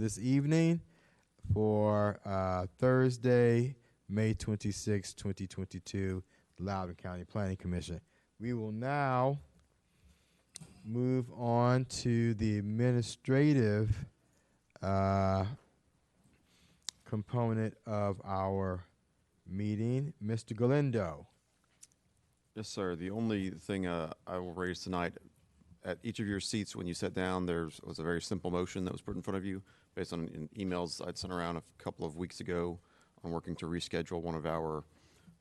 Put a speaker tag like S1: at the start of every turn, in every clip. S1: this evening for uh, Thursday, May 26, 2022, Loudoun County Planning Commission. We will now move on to the administrative uh, component of our meeting. Mr. Galindo.
S2: Yes, sir. The only thing uh, I will raise tonight, at each of your seats when you sat down, there was a very simple motion that was put in front of you based on in emails I'd sent around a couple of weeks ago on working to reschedule one of our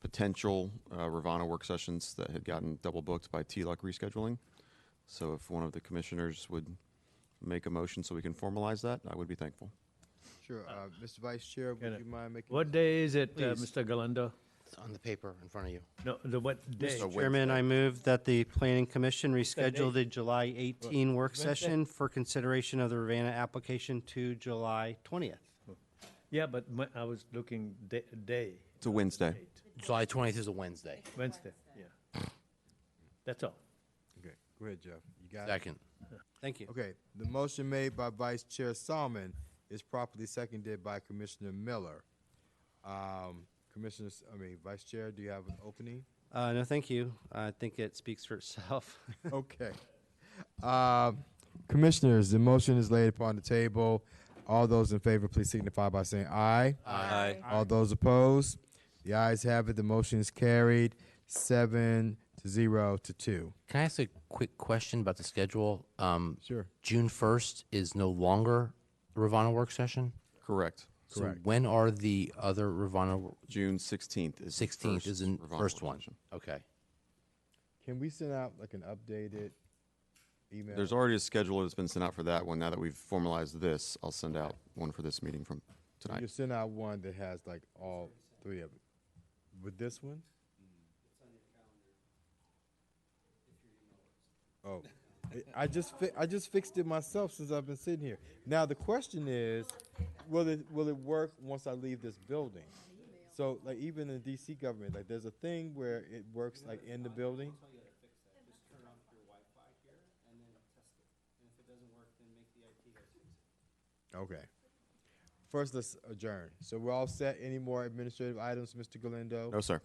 S2: potential uh, Ravana work sessions that had gotten double booked by TLUC rescheduling. So if one of the commissioners would make a motion so we can formalize that, I would be thankful.
S1: Sure. Uh, Mr. Vice Chair, would
S3: Can I-
S1: you mind making
S3: What day is it, uh,
S4: Please.
S3: Mr. Galindo?
S4: It's on the paper in front of you.
S3: No, the what day?
S2: Wednesday.
S4: Chairman, I move that the planning commission
S3: that
S4: reschedule
S3: day?
S4: the July 18 work
S3: Wednesday?
S4: session for consideration of the Ravana application to July 20th.
S3: Yeah, but my- I was looking da- day,
S2: It's a Wednesday.
S4: July 20th is a Wednesday.
S3: Wednesday, yeah. That's all.
S1: Okay, go ahead, Jeff. You got it.
S4: Second. Thank you.
S1: Okay, the motion made by Vice Chair Salmon is properly seconded by Commissioner Miller. Um, Commissioner, S- I mean, Vice Chair, do you have an opening?
S4: Uh, No, thank you. I think it speaks for itself.
S1: Okay. Um, Commissioners, the motion is laid upon the table. All those in favor, please signify by saying aye. Aye. All those opposed? The ayes have it, the motion is carried, seven to zero to two.
S5: Can I ask a quick question about the schedule? Um,
S1: Sure.
S5: June first is no longer Ravana work session.
S2: Correct.
S1: Correct.
S5: So when are the other Ravana
S2: June 16th is the
S5: sixteenth?
S2: first
S5: Is the
S2: Ravana
S5: first
S2: work
S5: one?
S2: session.
S5: Okay.
S1: Can we send out like an updated email?
S2: There's already a schedule that's been sent out for that one. Now that we've formalized this, I'll send out one for this meeting from
S1: You
S2: tonight.
S1: send out one that has like all three of them. With this one? Oh, I- I just fi- I just fixed it myself since I've been sitting here. Now the question is, will it will it work once I leave this building? So like even in DC government, like there's a thing where it works like in the building. Okay. First, let's adjourn. So we're all set. Any more administrative items, Mr. Galindo?
S2: No, sir.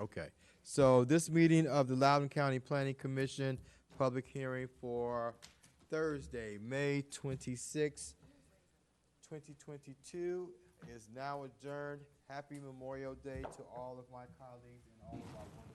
S1: Okay. So this meeting of the Loudoun County Planning Commission, public hearing for Thursday, May 26, 2022, is now adjourned. Happy Memorial Day to all of my colleagues and all of our wonderful